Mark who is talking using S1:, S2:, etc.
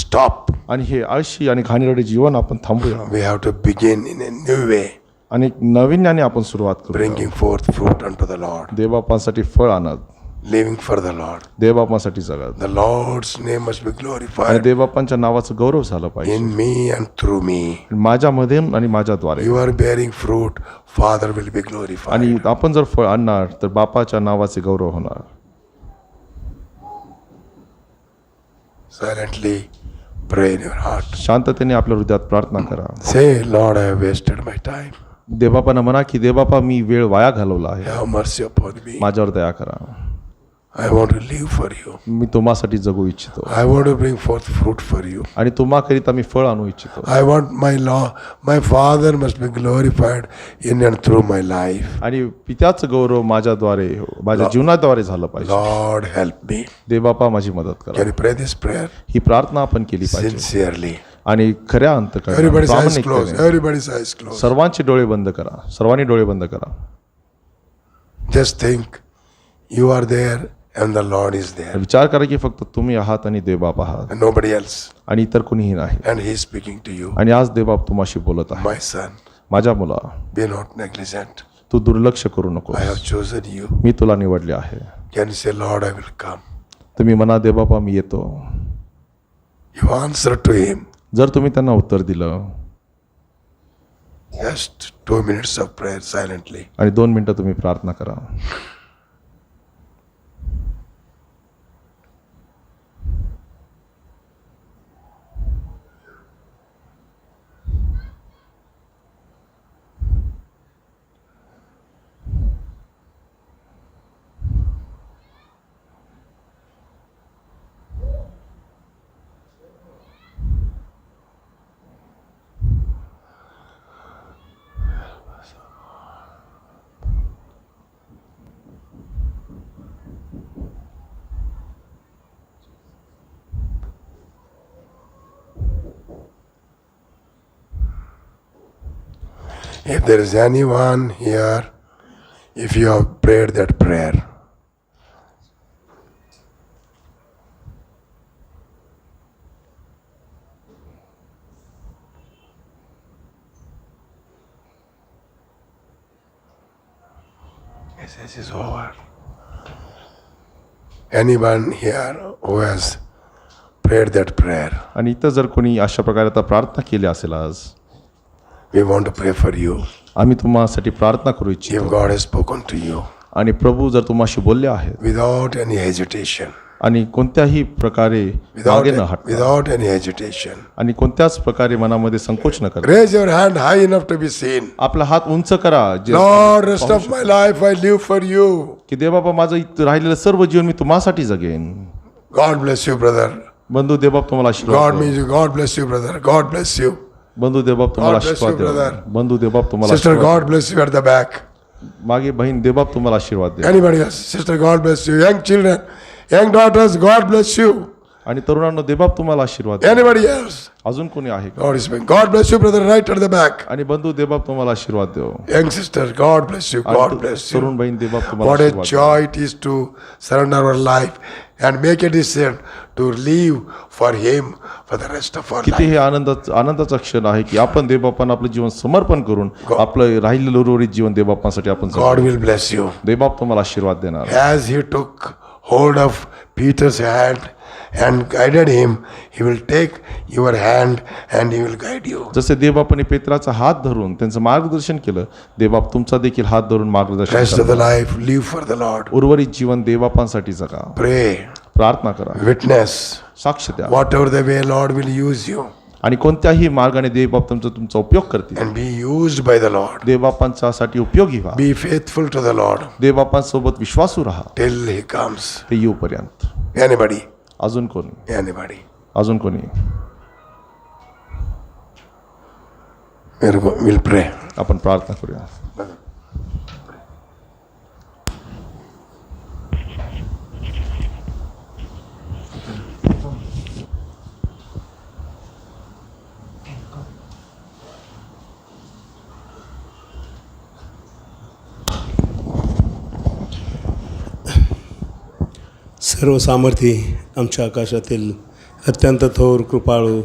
S1: stop.
S2: आणि हे आळशी आणि घाणेरडे जीवन आपण थांबूया
S1: We have to begin in a new way,
S2: आणि एक नवीन्याने आपण सुरुवात करू
S1: bringing forth fruit unto the Lord,
S2: देवबापांसाठी फळ आणत
S1: living for the Lord.
S2: देवबापांसाठी जगत
S1: The Lord's name must be
S2: आणि
S1: glorified
S2: देवबापांच्या नावाचं गौरव झालं पाहिजे
S1: in me and through me.
S2: माझ्यामध्ये आणि माझ्याद्वारे
S1: You are bearing fruit, Father will be glorified.
S2: आणि आपण जर फळ आणणार तर बापाच्या नावाचे गौरव होणार
S1: Silently pray in your heart.
S2: शांततेने आपल्या हृदयात प्रार्थना करा
S1: Say, Lord, I have wasted my time.
S2: देवबापांना म्हणा की देवबापा मी वेळ वाया घालवला आहे
S1: Have mercy upon me.
S2: माझ्यावर दया करा
S1: I want to live for you.
S2: मी तुम्हासाठी जगू इच्छितो
S1: I want to bring forth fruit for you.
S2: आणि तुम्हाकरिता मी फळ आणू इच्छितो
S1: I want my law, my Father must be glorified in and through my life.
S2: आणि पित्याचं गौरव माझ्याद्वारे माझ्या जीवनाद्वारे झालं पाहिजे
S1: Lord, help me.
S2: देवबापा माझी मदत करा
S1: Can you pray this prayer
S2: ही प्रार्थना आपण केली पाहिजे
S1: sincerely?
S2: आणि खऱ्या अंत
S1: Everybody's eyes
S2: प्रामाणिकतेने.
S1: closed. Everybody's eyes closed.
S2: सर्वांचे डोळे बंद करा सर्वांनी डोळे बंद करा
S1: Just think you are there and the Lord is there
S2: विचार करा की फक्त तुम्ही आहात आणि देवबाप आहात
S1: and nobody else.
S2: आणि इतर कुणीही नाही
S1: And He is speaking to you.
S2: आणि आज देवबाप तुम्हाशी बोलत आहे
S1: My son,
S2: माझ्या मुला
S1: be not negligent.
S2: तू दुर्लक्ष करू नको
S1: I have chosen you.
S2: मी तुला निवडले आहे
S1: Can you say, Lord, I will come?
S2: तुम्ही म्हणा देवबापा मी येतो
S1: You answer to Him.
S2: जर तुम्ही त्यांना उत्तर दिलं
S1: Just two minutes of prayer silently.
S2: आणि दोन मिनटं तुम्ही प्रार्थना करा
S1: If there is anyone here, if you have prayed that prayer, yes, this is over. Anyone here who has prayed that prayer,
S2: आणि इथं जर कोणी अशा प्रकारे आता प्रार्थना केली असेल आज
S1: we want to pray for you.
S2: आम्ही तुम्हासाठी प्रार्थना करू इच्छितो
S1: If God has spoken to you
S2: आणि प्रभू जर तुम्हाशी बोलले आहेत
S1: without any hesitation,
S2: आणि कोणत्याही प्रकारे
S1: without,
S2: मागे न हटता
S1: without any agitation.
S2: आणि कोणत्याच प्रकारे मनामध्ये संकोच न करता
S1: Raise your hand high enough to be seen.
S2: आपला हात उंच करा जे
S1: Lord, rest of my life I live for you.
S2: की देवबाबा माझं इथं राहिलेलं सर्व जीवन मी तुम्हासाठी जगेन
S1: God bless you, brother.
S2: बंधू देवबाप तुम्हाला
S1: God
S2: आशीर्वाद
S1: means
S2: देवो.
S1: you. God bless you, brother. God bless you.
S2: बंधू देवबाप तुम्हाला
S1: God bless you,
S2: आशीर्वाद
S1: brother.
S2: द्या बंधू देवबाप तुम्हाला
S1: Sister,
S2: आशीर्वाद
S1: God bless you at the back.
S2: देवो. मागे बहीण देवबाप तुम्हाला आशीर्वाद द्या
S1: Anybody else? Sister, God bless you. Young children, young daughters, God bless you.
S2: आणि तरुणांनो देवबाप तुम्हाला आशीर्वाद द्या
S1: Anybody else?
S2: अजून कोणी आहे का
S1: God is being. God bless you, brother, right at the back.
S2: आणि बंधू देवबाप तुम्हाला आशीर्वाद देव
S1: Young sister, God bless you. God bless you.
S2: तरुण बहीण देवबाप तुम्हाला
S1: What a
S2: आशीर्वाद द्यावो.
S1: joy it is to surrender our life and make a decision to live for Him for the rest of our
S2: किती
S1: life.
S2: हे आनंदाचं आनंदाचं क्षण आहे की आपण देवबापांना आपलं जीवन समर्पण करून आपलं राहिलेलं उर्वरित जीवन देवबापांसाठी आपण जगू.
S1: God will bless you.
S2: देवबाप तुम्हाला आशीर्वाद देणार
S1: As He took hold of Peter's hand and guided him, He will take your hand and He will guide you.
S2: जसे देवबापाने पेत्राचा हात धरून त्यांचं मार्गदर्शन केलं देवबाप तुमचा देखील हात धरून मार्गदर्शन
S1: Rest of
S2: करा.
S1: the life, live for the Lord.
S2: उर्वरित जीवन देवबापांसाठी जगा
S1: Pray,
S2: प्रार्थना करा
S1: witness,
S2: साक्ष द्या
S1: whatever the way Lord will use you,
S2: आणि कोणत्याही मार्गाने देवबाप तुमचा तुमचा उपयोग करतील
S1: and be used by the Lord.
S2: देवबापांच्यासाठी उपयोगी व्हा
S1: Be faithful to the Lord
S2: देवबापांसोबत विश्वासू राहा
S1: till He comes.
S2: ते येऊपर्यंत
S1: Anybody,
S2: अजून कोणी
S1: anybody.
S2: अजून कोणी
S1: We'll, go- we'll pray.
S2: आपण प्रार्थना करूया
S3: सर्व सामर्थी आमच्या आकाशातील अत्यंत थोर कृपाळू